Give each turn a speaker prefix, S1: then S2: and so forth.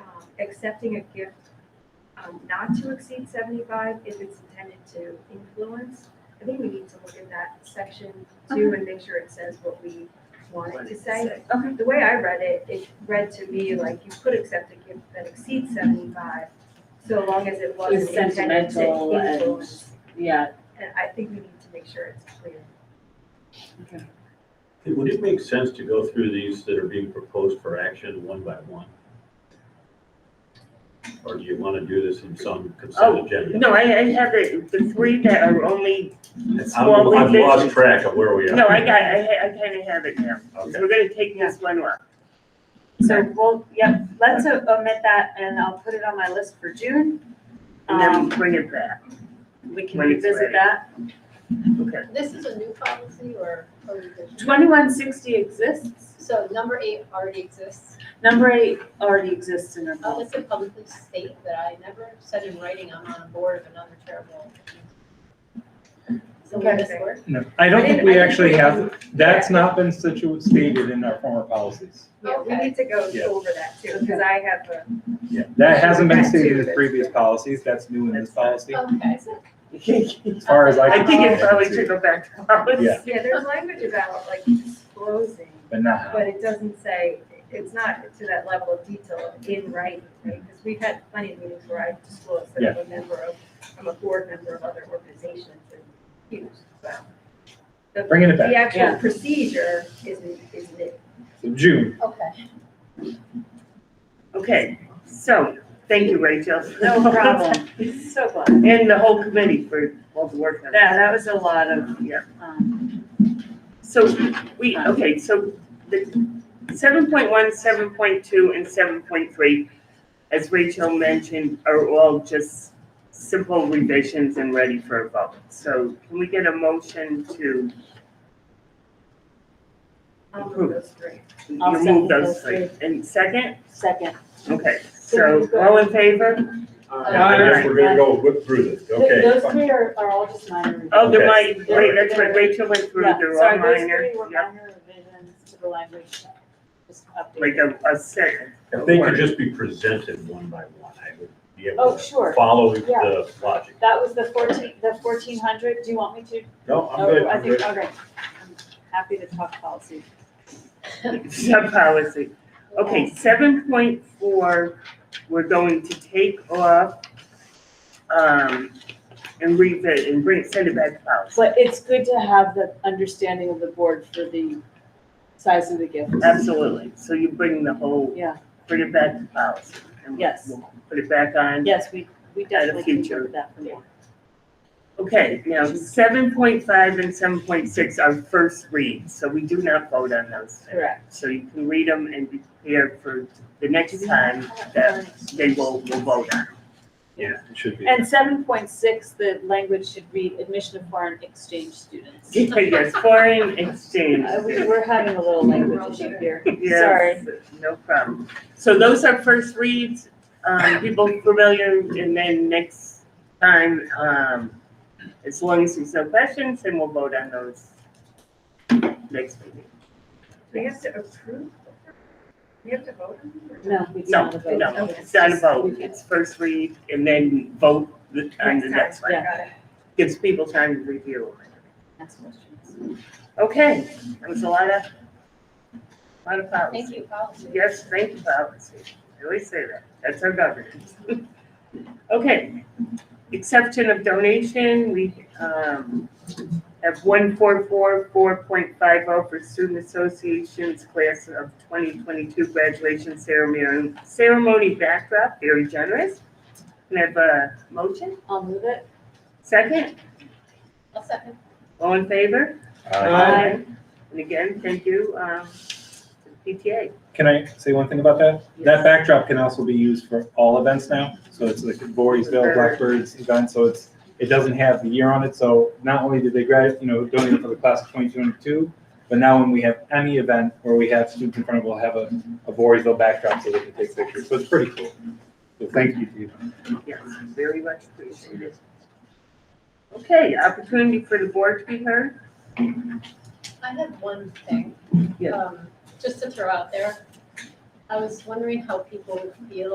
S1: um, accepting a gift um, not to exceed seventy-five if it's intended to influence. I think we need to look at that section too and make sure it says what we want it to say.
S2: Okay.
S1: The way I read it, it read to me like you could accept a gift that exceeds sevenentifive, so long as it wasn't
S3: It's
S1: intended to
S3: sentimental and,
S1: influence.
S3: yeah,
S1: And I think we need to make sure it's clear.
S4: Would it make sense to go through these that are being proposed for action one by one? Or do you want to do this in some
S5: Oh,
S4: consent agenda?
S5: No, I, I have the, the three that are only,
S4: I'm-
S5: well, we
S4: I've
S5: did-
S4: lost track of where we are.
S5: no, I got, I, ha- I kind of have it now.
S4: Okay.
S5: We're gonna take this one off.
S2: So we'll, yep, let's o- omit that and I'll put it on my list for June.
S5: And then
S2: Um,
S5: we bring it back.
S2: we can
S5: When it's
S2: revisit
S5: ready.
S2: that.
S5: Okay.
S6: This is a new policy or a revision?
S2: Twenty-one sixty exists.
S6: So number eight already exists.
S2: Number eight already exists in our
S6: I'll
S2: policy.
S6: just publicly state that I never said in writing I'm on a board of another terrible. So will this
S1: Okay.
S6: work?
S7: No, I don't think we actually have, that's not been situ- stated in our former policies.
S1: Yeah, we need to go
S7: Yeah.
S1: over that too, because I have a.
S7: That hasn't been stated in previous policies, that's new in this policy,
S6: Okay.
S7: as far as I
S5: I
S7: can.
S5: think it probably
S7: see.
S5: should go back to ours.
S7: Yeah.
S1: Yeah, there's language about like disclosing,
S7: But not how.
S1: but it doesn't say, it's not to that level of detail of in writing, right? Because we've had plenty of meetings where I disclosed that I'm a member of, I'm a board member of other organizations and huge, so. The-
S7: Bringing it back.
S1: The actual
S3: Yeah.
S1: procedure is, is new.
S7: So June,
S6: Okay.
S5: Okay, so, thank you, Rachel.
S2: No problem. So glad.
S5: And the whole committee for all the work. on it.
S2: Yeah, that was a lot of,
S5: Yeah.
S2: um,
S5: So we, okay, so the seven point one, seven point two, and seven point three, as Rachel mentioned, are all just simple revisions and ready for a vote. So can we get a motion to
S1: I'll move those three.
S2: I'll second
S5: remove
S2: those
S5: those three? And second,
S2: second.
S5: okay, so all in favor?
S6: Uh,
S4: I guess we're going to go whip through this,
S2: Th-
S4: okay?
S2: Those three are, are all just minor revisions.
S5: Oh, they're
S4: Okay.
S5: my, right, that's right, Rachel went through,
S2: Yeah,
S5: they're all
S2: sorry, those
S5: minor.
S2: three were
S5: Yeah,
S2: minor revisions to the language, just updated.
S5: Like a, a second.
S4: If they could just be presented one by one, I would be able
S2: Oh,
S4: to
S2: sure.
S4: follow
S2: Yeah.
S4: the logic.
S2: That was the fourteen, the fourteen hundred, do you want me to?
S4: No, I'm
S2: Oh,
S4: good,
S2: I
S4: I'm
S2: think,
S4: good.
S2: okay, I'm happy to talk policy.
S5: Sub-policy. Okay, seven point four, we're going to take off, um, and revisit and bring, send it back to policy.
S2: But it's good to have the understanding of the board for the size of the gift.
S5: Absolutely, so you bring the whole,
S2: Yeah,
S5: bring it back to policy. and
S2: Yes.
S5: we'll Put it back on.
S2: yes, we, we definitely can
S5: future.
S2: look at that for more.
S5: Okay, now, seven point five and seven point six are first reads, so we do not vote on those.
S2: Correct.
S5: So you can read them and be prepared for the next time that they will, will vote on.
S4: Yeah, it should be.
S2: And seven point six, the language should read admission of foreign exchange students.
S5: Yes, foreign exchange.
S2: Uh, we, we're having a little language issue here.
S5: Yes, No problem. So those are first reads, um, people familiar, and then next time, um, as long as there's no questions, then we'll vote on those next meeting.
S1: We have to approve? We have to vote on them? or-
S2: No, it's
S5: No,
S2: not a vote.
S5: no, it's not a vote, it's first read, and then vote the- on the next
S1: time,
S5: one.
S1: got it.
S5: Gives people time to review.
S2: Ask questions.
S5: Okay, that was a lot of, lot of policy.
S6: Thank you, policy.
S5: Yes, thank you, policy. I always say that. That's our governance. Okay, exception of donation, we um, have one four four four point five oh for Student Association's class of twenty twenty-two graduation ceremony, ceremony backdrop, very generous. Can I have a motion?
S2: I'll move it.
S5: Second,
S6: I'll second.
S5: all in favor?
S7: Uh,
S5: And again, thank you, um, to the PTA.
S7: Can I say one thing about that?
S5: Yes.
S7: That backdrop can also be used for all events now, so it's like Voorheesville, Blackbirds event, so it's, it doesn't have the year on it, so not only did they grad, you know, donate for the class of twenty twenty-two, but now when we have any event where we have students in front of, we'll have a, a Voorheesville backdrop so they can take pictures, so it's pretty cool. So thank you to you.
S5: Yes, very much appreciated. Okay, opportunity for the board to be heard?
S6: I had one thing.
S5: Yeah.
S6: um, Just to throw out there. I was wondering how people would feel